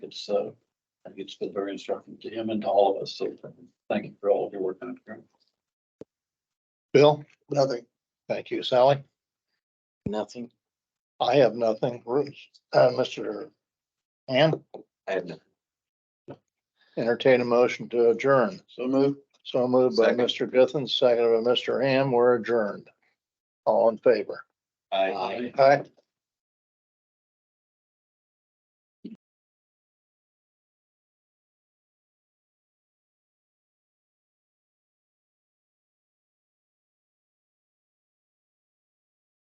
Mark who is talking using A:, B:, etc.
A: it's, uh, I think it's been very instructive to him and to all of us. So thank you for all of your work on it.
B: Bill,
C: Nothing.
B: thank you. Sally,
C: Nothing.
B: I have nothing. Bruce, uh, Mr. And
C: I have nothing.
B: entertain a motion to adjourn.
A: So move.
B: So moved by
C: Second.
B: Mr. Guthans, seconded by Mr. Ham. We're adjourned. All in favor?
C: Aye.
B: Aye.